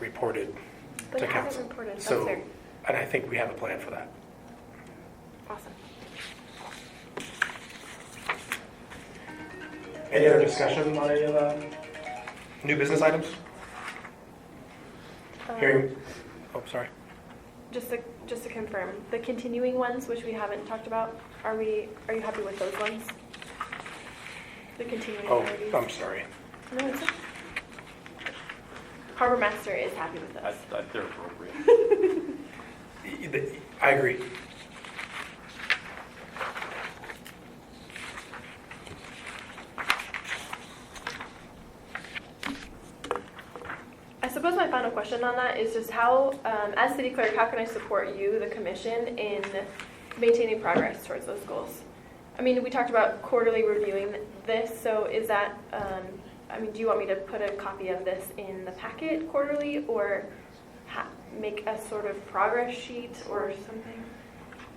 reported But to it hasn't council. reported. That's So, fair. and I think we have a plan for that. Awesome. Any other discussion on any of the new business items? Um, Hearing, oh, sorry. Just to, just to confirm, the continuing ones, which we haven't talked about, are we, are you happy with those ones? The continuing Oh, authorities? I'm sorry. No, it's okay. Harbor Master is happy with I, those. I, they're appropriate. Y- the- I agree. I suppose my final question on that is just how, um, as city clerk, how can I support you, the commission, in maintaining progress towards those goals? I mean, we talked about quarterly reviewing this, so is that, um, I mean, do you want me to put a copy of this in the packet quarterly or ha- make a sort of progress sheet or something?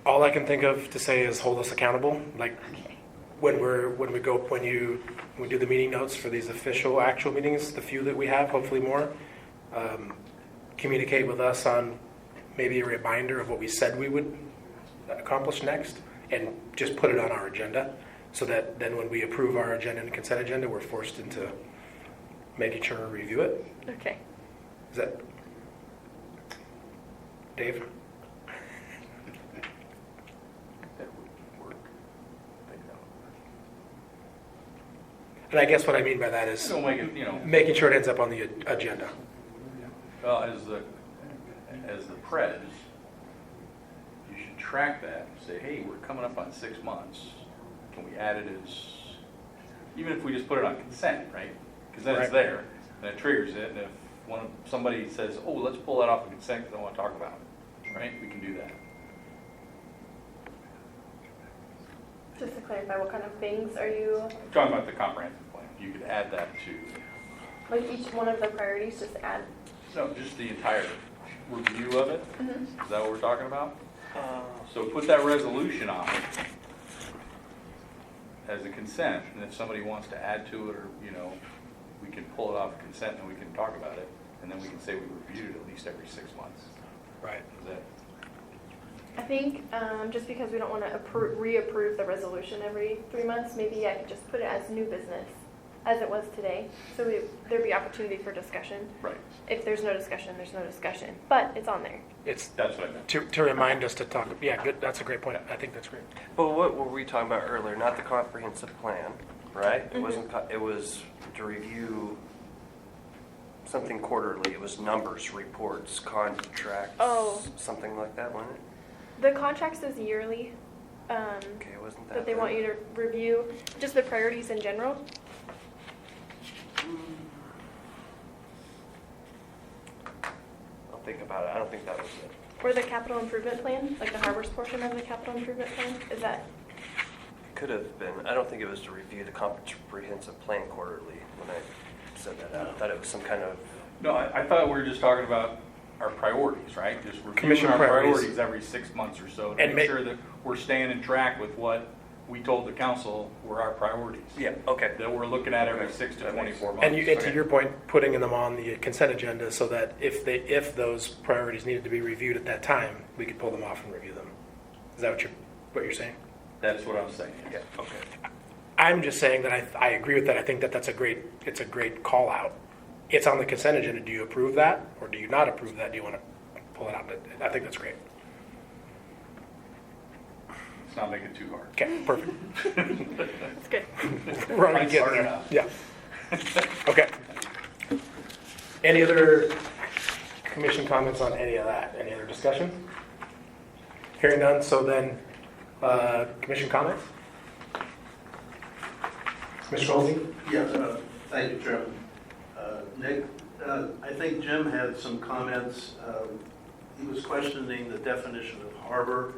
All I can think of to say is hold us accountable. Like Okay. when we're, when we go, when you, we do the meeting notes for these official actual meetings, the few that we have, hopefully more, um, communicate with us on maybe a reminder of what we said we would accomplish next and just put it on our agenda so that then when we approve our agenda and consent agenda, we're forced into making sure to review it. Okay. Is that Dave? That would work. I think that would And I guess what I mean by that work. is Don't make it, you know, making sure it ends up on the a- agenda. well, as the, as the prez, you should track that and say, hey, we're coming up on six months. Can we add it as, even if we just put it on consent, right? Because then it's Right. there, and it triggers it, and if one, of- somebody says, oh, let's pull that off of consent because I want to talk about it, right? We can do that. Just to clarify, what kind of things are you, Talking about the comprehensive plan, you could add that to like each one of the priorities, just add? No, just the entire review of it? Is that what we're talking about? So put that resolution on it as a consent, and if somebody wants to add to it, or, you know, we can pull it off consent, and we can talk about it, and then we can say we reviewed it at least every six months. Right. Is that, I think um, just because we don't want to appro- reapprove the resolution every three months, maybe I could just put it as new business, as it was today. So we, there'd be opportunity for discussion. right, If there's no discussion, there's no discussion, but it's on there. It's that's what I meant. to, to remind us to talk, yeah, good, that's a great point. I think that's great. But what were we talking about earlier? Not the comprehensive plan, right? Mm-hmm. It wasn't, co- it was to review something quarterly. It was numbers, reports, contracts, Oh. something like that, wasn't it? The contracts is yearly, um, Okay, wasn't that? that they want you to review, just the priorities in general. I'll think about it. I don't think that was it. Or the capital improvement plan, like the harbors portion of the capital improvement plan, is that, Could have been. I don't think it was to review the comprehensive plan quarterly when I said that. I thought it was some kind of, No, I, I thought we were just talking about our priorities, right? Just reviewing Commission our priorities. priorities every six months or so, to And make ma- sure that we're staying in track with what we told the council were our priorities. yeah, okay. that we're looking at every six to 24 months. And you, and to Okay. your point, putting them on the consent agenda so that if they, if those priorities needed to be reviewed at that time, we could pull them off and review them. Is that what you're, what you're saying? That's what I'm saying. Yeah, okay. I'm just saying that I, I agree with that. I think that that's a great, it's a great call out. It's on the consent agenda. Do you approve that or do you not approve that? Do you want to pull it out? I think that's great. Let's not make it too hard. Okay, perfect. that's good. We're already Mine's getting hard there. enough. Yeah. Okay. Any other commission comments on any of that? Any other discussion? Hearing none, so then, uh, commission comments? Mr. Goldie? Yeah, uh, thank you, Chairman. Uh, Nick, uh, I think Jim had some comments. Um, He was questioning the definition of harbor,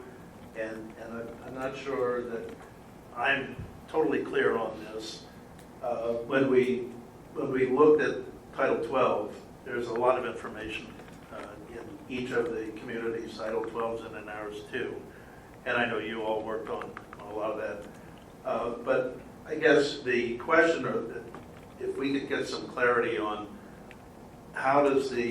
and and I'm- I'm not sure that I'm totally clear on this. Uh, When we, when we looked at Title 12, there's a lot of information uh, in each of the communities, Title 12s and in ours too. And I know you all worked on on a lot of that. Uh, But I guess the question, or if we could get some clarity on how does the